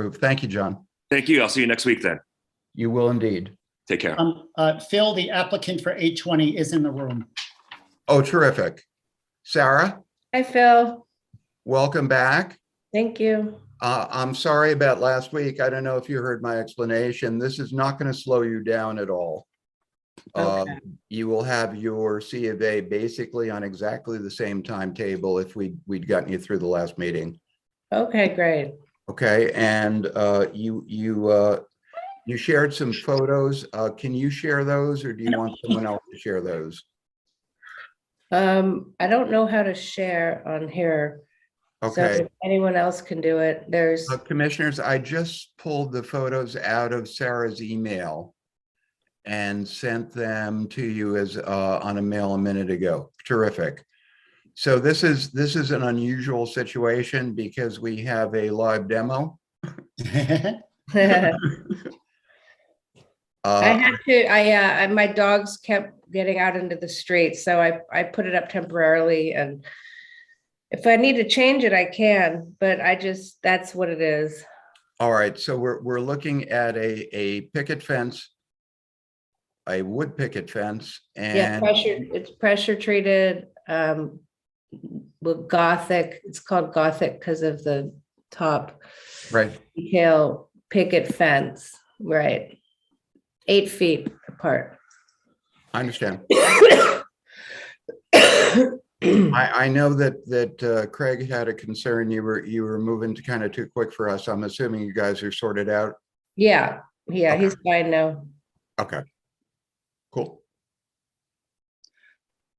approved. Thank you, John. Thank you. I'll see you next week then. You will indeed. Take care. Um, uh, Phil, the applicant for 820 is in the room. Oh, terrific. Sarah, Hi, Phil. welcome back. Thank you. Uh, I'm sorry about last week. I don't know if you heard my explanation. This is not going to slow you down at all. Um, You will have your C of A basically on exactly the same timetable if we, we'd gotten you through the last meeting. Okay, great. Okay, and uh, you, you, uh, you shared some photos. Uh, Can you share those or do you want someone else to share those? Um, I don't know how to share on here. so Okay. if Anyone else can do it. There's, Uh, Commissioners, I just pulled the photos out of Sarah's email and sent them to you as, uh, on a mail a minute ago. Terrific. So this is, this is an unusual situation because we have a live demo. I Uh, had to, I, uh, I- my dogs kept getting out into the street, so I, I put it up temporarily and if I need to change it, I can, but I just, that's what it is. All right, so we're, we're looking at a, a picket fence, a wood picket fence Yeah, and, pressure, it's pressure treated, um, with gothic, it's called gothic because of the top. right, detail picket fence, right? Eight feet apart. I understand. Yeah, I, I know that, that uh, Craig had a concern. You were, you were moving to kind of too quick for us. I'm assuming you guys are sorted out. yeah, he's fine now. Okay. Cool.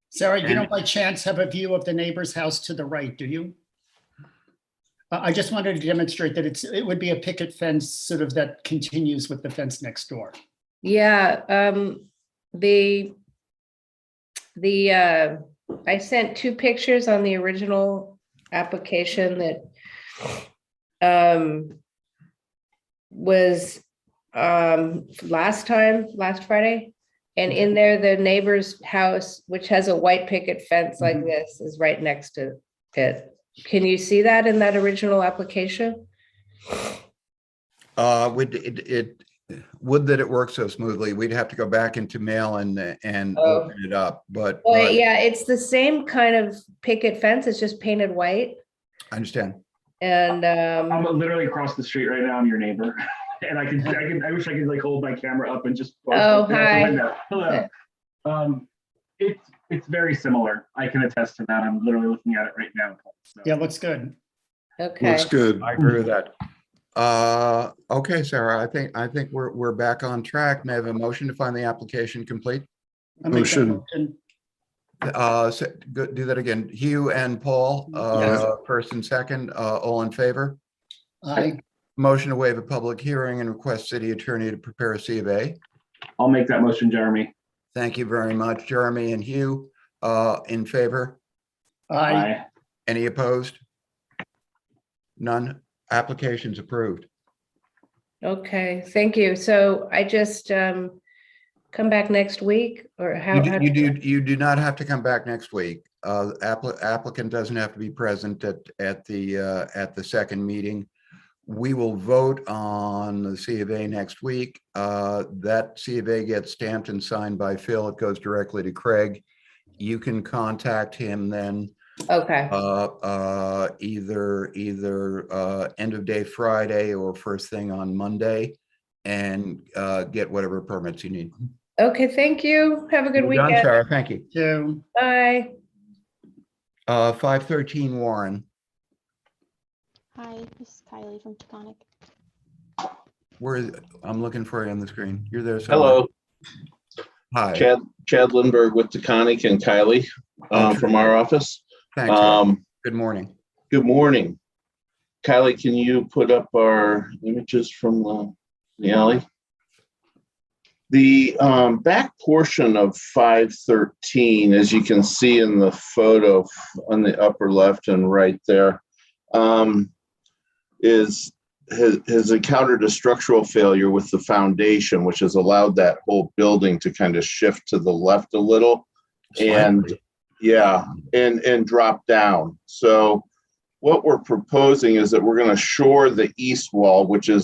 Sarah, you don't by chance have a view of the neighbor's house to the right, do you? Uh, I just wanted to demonstrate that it's, it would be a picket fence sort of that continues with the fence next door. Yeah, um, the, the, uh, I sent two pictures on the original application that um, was, um, last time, last Friday. And in there, the neighbor's house, which has a white picket fence like Mhm. this, is right next to it. Can you see that in that original application? Uh, would, it, it, would that it worked so smoothly. We'd have to go back into mail and, and Oh. open it up, but uh, Well, but yeah, it's the same kind of picket fence. It's just painted white. I understand. And I'm um, literally across the street right now. I'm your neighbor, and I can, I can, I wish I could like hold my camera up and just. Oh, out the hi. window. Hello. Um, it's it's very similar. I can attest to that. I'm literally looking at it right now. So, Yeah, looks good. okay, Looks good. I agree with that. Uh, okay, Sarah, I think, I think we're, we're back on track. May I have a motion to find the application complete? I'll make that Motion. motion. Uh, so- go- do that again. Hugh and Paul, Yes. uh, first and second, uh, all in favor? I, Motion to waive a public hearing and request city attorney to prepare a C of A. I'll make that motion, Jeremy. Thank you very much, Jeremy and Hugh. Uh, in favor? I, Aye. Any opposed? None. Application's approved. okay, thank you. So I just um come back next week or how? You how do, you do, you do not have to come back next week. Uh, appli- applicant doesn't have to be present at, at the, uh, at the second meeting. We will vote on the C of A next week. Uh, that C of A gets stamped and signed by Phil. It goes directly to Craig. You can contact him then, Okay, uh, uh, either, either, uh, end of day Friday or first thing on Monday and, uh, get whatever permits you need. okay, thank you. Have a good We're done, weekend. Sarah. Thank you. do, Bye. Uh, five thirteen Warren, Hi, this is Kylie from Taconic. where is, I'm looking for you on the screen. You're there. somewhere. Hello, Hi. Chad, Chad Lindberg with Taconic and Kylie um, from our office. Thanks. Warren. Um, Good morning. Good morning. Kylie, can you put up our images from the- the alley? The um, back portion of 513, as you can see in the photo f- on the upper left and right there, um, is, has has encountered a structural failure with the foundation, which has allowed that whole building to kind of shift to the left a little. And, yeah, and, and drop down. So what we're proposing is that we're going to shore the east wall, which is